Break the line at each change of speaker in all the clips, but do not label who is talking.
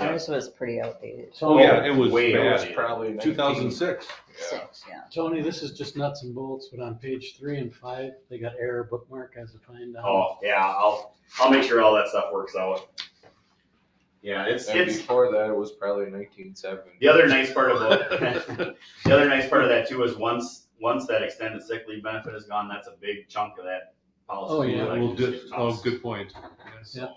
Ours was pretty outdated.
Oh,
Tony,
yeah, it was
Way
bad.
outdated. probably 19.
2006.
Yeah.
Six, yeah.
Tony, this is just nuts and bolts, but on page three and five, they got error bookmark as a find out.
Oh, yeah, I'll, I'll make sure all that stuff works out. Yeah, it's,
And
it's,
before that, it was probably nineteen seventy.
the other nice part about,
Oh,
the other nice part of that too is once, once that extended sick leave benefit is gone, that's a big chunk of that policy.
Oh, yeah,
that I
Well,
can
good,
just
oh,
toss.
good point.
Yeah.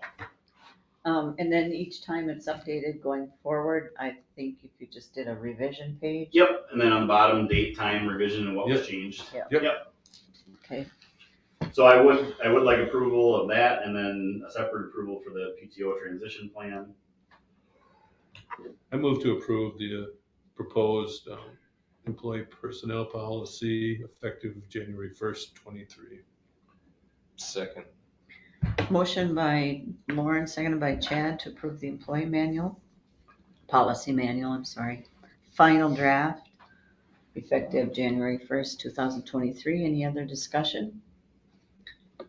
Um, and then each time it's updated going forward, I think if you just did a revision page,
Yep, and then on the bottom, date, time, revision, and what was changed.
okay,
So I would, I would like approval of that and then a separate approval for the PTO transition plan.
I move to approve the uh, proposed um, employee personnel policy effective January 1st, 23.
Second.
Motion by Lauren, seconded by Chad to approve the employee manual, policy manual, I'm sorry. Final draft, effective January 1st, 2023. Any other discussion?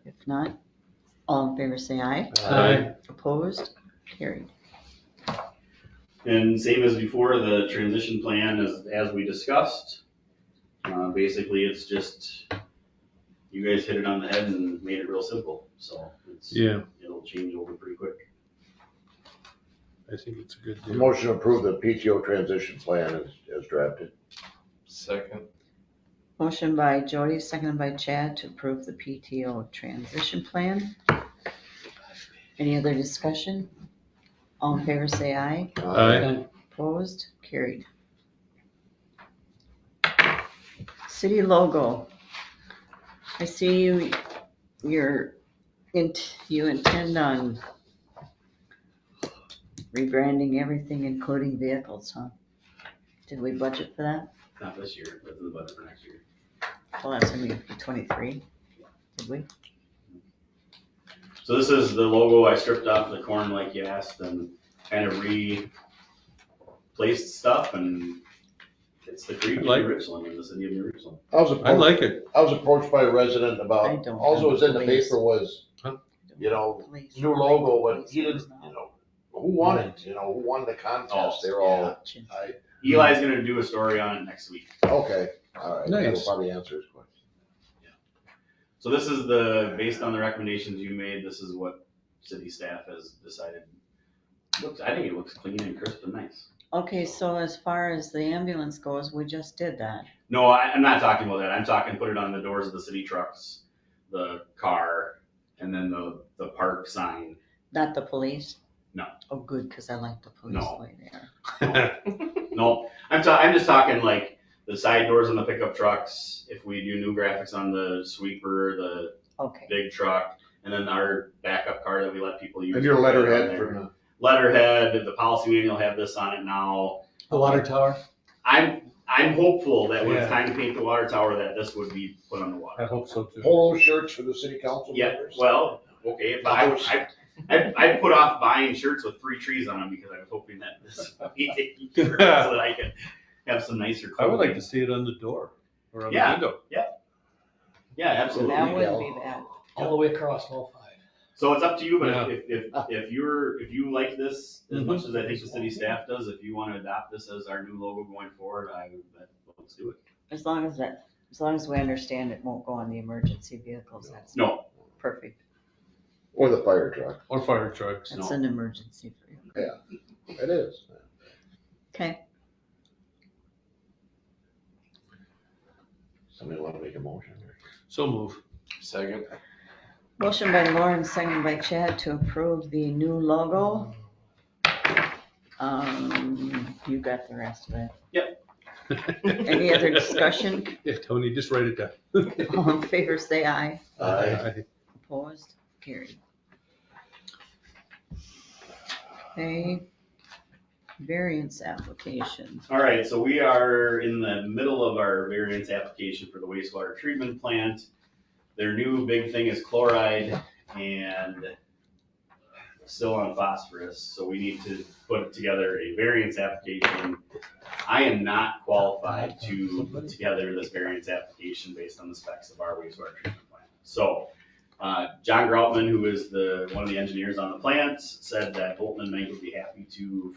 If not, all in favor say aye.
Aye.
Opposed? Carried.
And same as before, the transition plan is, as we discussed. Uh, basically, it's just, you guys hit it on the head and made it real simple, so it's,
Yeah,
it'll change over pretty quick.
I think it's a good deal.
Motion to approve the PTO transition plan as, as drafted.
Second.
Motion by Jody, seconded by Chad to approve the PTO transition plan. Any other discussion? All in favor say aye.
Aye.
Opposed, carried. City logo. I see you, you're, int- you intend on rebranding everything, including vehicles, huh? Did we budget for that?
Not this year, but in the budget for next year.
Well, that's gonna be twenty-three. Did we?
So this is the logo I stripped off the corn like you asked and kind of replaced stuff and it's the creek in
Like-
Richland, in the city of New Richland.
I was
I
approached,
like it.
I was approached by a resident
I
about,
don't
also was in the
believe-
paper was, you know, new logo, but he didn't, you know, who won it, you know, who won the contest, they're all, I,
Eli's gonna do a story on it next week.
okay, all right. That'll
Nice.
probably answer his question.
So this is the, based on the recommendations you made, this is what city staff has decided. Looks, I think it looks clean and crisp and nice.
Okay, so as far as the ambulance goes, we just did that.
No, I, I'm not talking about that. I'm talking put it on the doors of the city trucks, the car, and then the, the park sign.
Not the police?
No.
Oh, good, because I like the police
No.
way there.
No, I'm ta- I'm just talking like the side doors on the pickup trucks, if we do new graphics on the sweeper, the
Okay,
big truck, and then our backup car that we let people use.
And your letterhead for,
Letterhead, the policy manual have this on it now.
The water tower?
I'm, I'm hopeful that when it's
Yeah.
time to paint the water tower, that this would be put on the water.
hope so
polo shirts for the city council
Yeah,
members?
well, okay, but I, was- I, I, I put off buying shirts with three trees on them because I was hoping that this would be taken care of so that I could have some nicer
I
clothing.
would like to see it on the door or on the
Yeah.
window.
Yeah, absolutely.
that wouldn't be bad.
All the way across all five.
So it's up to you, but
Yeah. Mm-hmm.
if, if, if you're, if you like this as much as I think the city staff does, if you wanna adopt this as our new logo going forward, I, would that- let's do it.
As long as that, as long as we understand it won't go on the emergency vehicles, that's
No,
perfect.
Or the fire truck,
Or fire trucks.
That's an emergency for you.
it is.
Okay,
Somebody wanna make a motion?
So move.
Second.
motion by Lauren, second by Chad to approve the new logo. Um, you got the rest of it. Any other discussion?
Yeah, Tony, just write it down.
All in favor, say aye.
Aye.
Opposed, carried. Okay, variance application.
all right, so we are in the middle of our variance application for the wastewater treatment plant. Their new big thing is chloride and still on phosphorus, so we need to put together a variance application. I am not qualified to put together this variance application based on the specs of our wastewater treatment plant. So, uh, John Groutman, who is the, one of the engineers on the plant, said that Bolton and Mink would be happy to